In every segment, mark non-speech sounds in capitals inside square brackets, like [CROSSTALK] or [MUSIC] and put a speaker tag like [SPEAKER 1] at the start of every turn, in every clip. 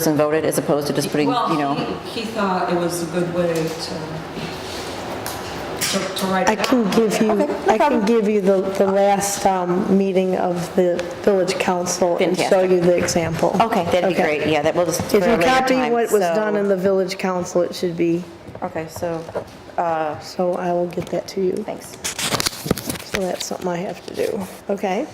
[SPEAKER 1] person voted as opposed to just putting, you know?
[SPEAKER 2] Well, he he thought it was a good way to, to- to write
[SPEAKER 3] I
[SPEAKER 2] it down.
[SPEAKER 3] can give you, I can give you the, the last um, meeting of the village council and show
[SPEAKER 1] Fantastic.
[SPEAKER 3] you the example.
[SPEAKER 1] Okay, that'd be
[SPEAKER 3] Okay.
[SPEAKER 1] great, yeah, that will just.
[SPEAKER 3] If you copy what was done in the village council, it should be,
[SPEAKER 1] Okay, so,
[SPEAKER 3] so I will get that to you.
[SPEAKER 1] thanks.
[SPEAKER 3] So that's something I have to do, okay?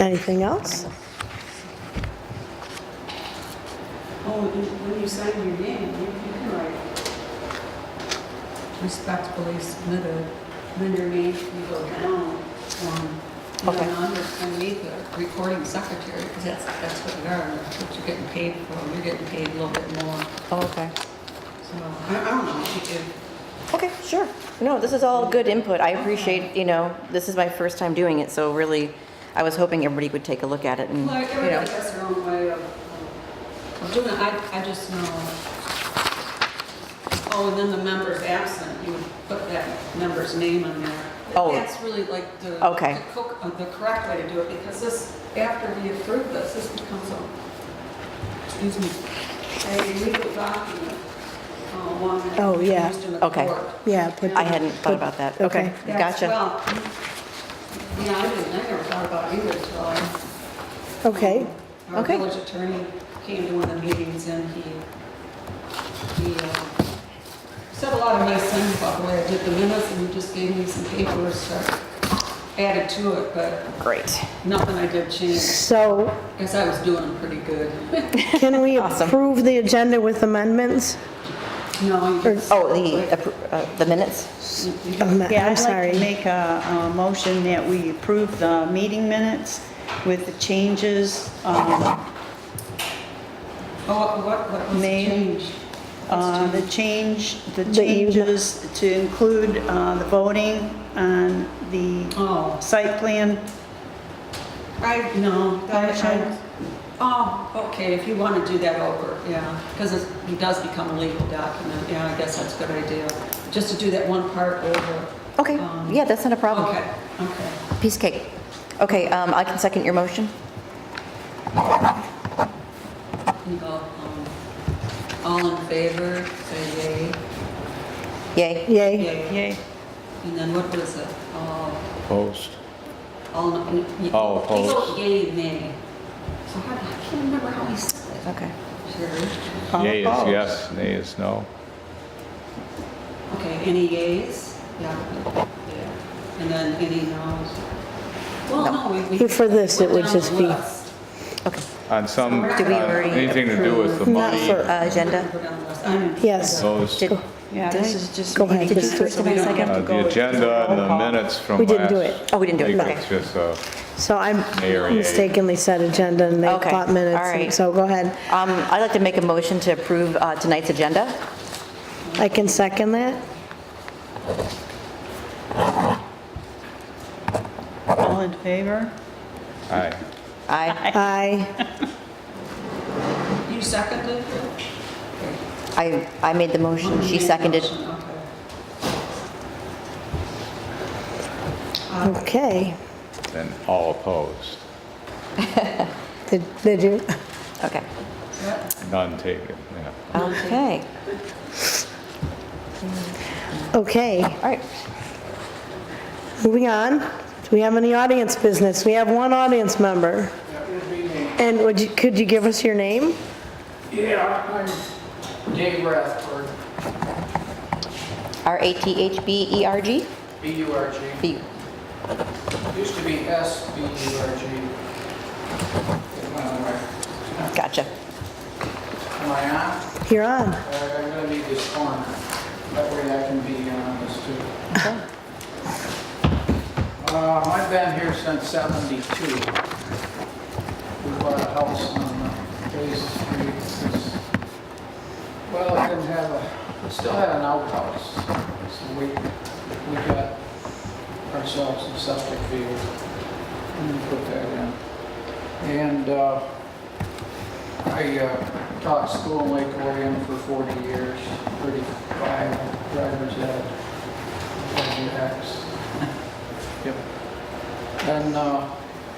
[SPEAKER 3] Anything else?
[SPEAKER 4] Oh, you- when you sign your name, you you can write,
[SPEAKER 2] Respectfully submitted.
[SPEAKER 4] and then your name can go down, um, and
[SPEAKER 1] Okay.
[SPEAKER 4] then under, underneath the recording secretary, because that's, that's what you are, that's what you're getting paid for, you're getting paid a little bit more,
[SPEAKER 1] Okay.
[SPEAKER 4] so, I I don't know, if,
[SPEAKER 1] Okay, sure. No, this is all good input. I appreciate, you know, this is my first time doing it, so really, I was hoping everybody would take a look at it and,
[SPEAKER 4] like,
[SPEAKER 1] you
[SPEAKER 4] everybody
[SPEAKER 1] know.
[SPEAKER 4] has their own way of, of- of doing it, I, I just know, oh, and then the member's absent, you would put that member's name on there. But
[SPEAKER 1] Oh.
[SPEAKER 4] That's really like the,
[SPEAKER 1] Okay.
[SPEAKER 4] the co- uh, the correct way to do it, because this, after we approve this, this becomes a, excuse me, a legal document, uh, one
[SPEAKER 3] Oh,
[SPEAKER 4] that's
[SPEAKER 3] yeah.
[SPEAKER 4] used in the
[SPEAKER 1] Okay.
[SPEAKER 4] court.
[SPEAKER 3] Yeah, put
[SPEAKER 1] I hadn't thought about that. Okay,
[SPEAKER 4] That's-
[SPEAKER 1] gotcha.
[SPEAKER 4] Well, yeah, I didn't, I never thought about it either until I
[SPEAKER 3] Okay,
[SPEAKER 4] our
[SPEAKER 1] Okay.
[SPEAKER 4] village attorney came to one of the meetings and he, he uh, said a lot of nice things about the way I did the minutes and he just gave me some papers to add to it, but
[SPEAKER 1] Great.
[SPEAKER 4] nothing I did change.
[SPEAKER 3] so
[SPEAKER 4] Guess I was doing pretty good.
[SPEAKER 3] can
[SPEAKER 1] [LAUGHS]
[SPEAKER 3] we
[SPEAKER 1] Awesome.
[SPEAKER 3] approve the agenda with amendments?
[SPEAKER 4] No, you just.
[SPEAKER 1] Oh, the, appro- uh, the minutes?
[SPEAKER 3] Um, I'm
[SPEAKER 5] Yeah, I'd like to
[SPEAKER 3] sorry.
[SPEAKER 5] make a, a motion that we approve the meeting minutes with the changes, um,
[SPEAKER 4] Oh, what, what was the
[SPEAKER 5] Name.
[SPEAKER 4] change?
[SPEAKER 5] uh, the change, the
[SPEAKER 3] The you-
[SPEAKER 5] changes to include, uh, the voting on the
[SPEAKER 4] Oh,
[SPEAKER 5] site plan.
[SPEAKER 4] I, no, that,
[SPEAKER 5] Motion.
[SPEAKER 4] I, oh, okay, if you want to do that over, yeah, because it it does become a legal document, yeah, I guess that's a good idea, just to do that one part over.
[SPEAKER 1] Okay,
[SPEAKER 4] Um,
[SPEAKER 1] yeah, that's not a problem.
[SPEAKER 4] Okay, okay.
[SPEAKER 1] Piece of cake. Okay, um, I can second your motion?
[SPEAKER 4] Can you go, um, All in favor, say
[SPEAKER 1] Yay?
[SPEAKER 4] yay.
[SPEAKER 3] Yay,
[SPEAKER 4] Yay.
[SPEAKER 5] Yay.
[SPEAKER 4] And then what was it? Uh,
[SPEAKER 6] Post.
[SPEAKER 4] All, in- you- you
[SPEAKER 6] Oh,
[SPEAKER 4] vote
[SPEAKER 6] opposed.
[SPEAKER 4] yay, nay. So how- I can't remember how we said it.
[SPEAKER 1] Okay.
[SPEAKER 4] Sherry?
[SPEAKER 5] All
[SPEAKER 6] Yay is
[SPEAKER 5] opposed.
[SPEAKER 6] yes, nay is no.
[SPEAKER 4] Okay, any yays? Yeah. And then any noes? Well, no, we- we.
[SPEAKER 3] Here for this, it
[SPEAKER 4] we're
[SPEAKER 3] would
[SPEAKER 4] down the
[SPEAKER 3] just be-
[SPEAKER 4] list.
[SPEAKER 1] Okay.
[SPEAKER 6] On some,
[SPEAKER 4] Do we
[SPEAKER 6] on
[SPEAKER 1] already
[SPEAKER 6] anything to do with the
[SPEAKER 3] Not
[SPEAKER 6] money,
[SPEAKER 3] for-
[SPEAKER 1] Uh, Agenda?
[SPEAKER 4] We're down the list. I'm-
[SPEAKER 3] yes.
[SPEAKER 6] those,
[SPEAKER 3] Oh.
[SPEAKER 1] Did-
[SPEAKER 5] Yeah,
[SPEAKER 1] Did
[SPEAKER 5] this
[SPEAKER 1] I-
[SPEAKER 5] is just.
[SPEAKER 3] Go ahead,
[SPEAKER 1] Did you
[SPEAKER 3] just-
[SPEAKER 1] first and I second?
[SPEAKER 6] uh, the agenda and the minutes from last.
[SPEAKER 3] We didn't do it.
[SPEAKER 1] Oh, we didn't do it,
[SPEAKER 6] week,
[SPEAKER 1] okay.
[SPEAKER 6] It's just, uh,
[SPEAKER 3] So I
[SPEAKER 6] Mayor, yay.
[SPEAKER 3] mistakenly said agenda and they
[SPEAKER 1] Okay,
[SPEAKER 3] thought minutes,
[SPEAKER 1] all right.
[SPEAKER 3] and so go ahead.
[SPEAKER 1] Um, I'd like to make a motion to approve uh, tonight's agenda.
[SPEAKER 3] I can second that?
[SPEAKER 5] All in favor?
[SPEAKER 6] aye.
[SPEAKER 1] I,
[SPEAKER 3] [LAUGHS] Aye,
[SPEAKER 4] You seconded it?
[SPEAKER 1] I, I made the motion, she seconded.
[SPEAKER 4] Okay.
[SPEAKER 3] okay.
[SPEAKER 6] Then all opposed,
[SPEAKER 3] Did did you?
[SPEAKER 1] Okay.
[SPEAKER 6] none taken, yeah.
[SPEAKER 1] Okay,
[SPEAKER 3] Okay,
[SPEAKER 1] all right.
[SPEAKER 3] moving on. Do we have any audience business? We have one audience member. And would you, could you give us your name?
[SPEAKER 7] Yeah, I'm Dave Rathberg,
[SPEAKER 1] R-A-T-H-B-E-R-G?
[SPEAKER 7] B-U-R-G.
[SPEAKER 1] B-
[SPEAKER 7] Used to be S-B-U-R-G. It went away.
[SPEAKER 1] Gotcha.
[SPEAKER 7] Am I on?
[SPEAKER 3] You're on.
[SPEAKER 7] Uh, I'm gonna need this corner. That way I can be on this too. Um, I've been here since 72. We bought a house on uh, Bay Street. It's- Well, it didn't have a, it still had an outhouse. So we, we got ourselves a septic field and we put that in. And uh, I uh, taught school in Lake Orion for 40 years, 35 driver's ed, WX. Yep. And uh,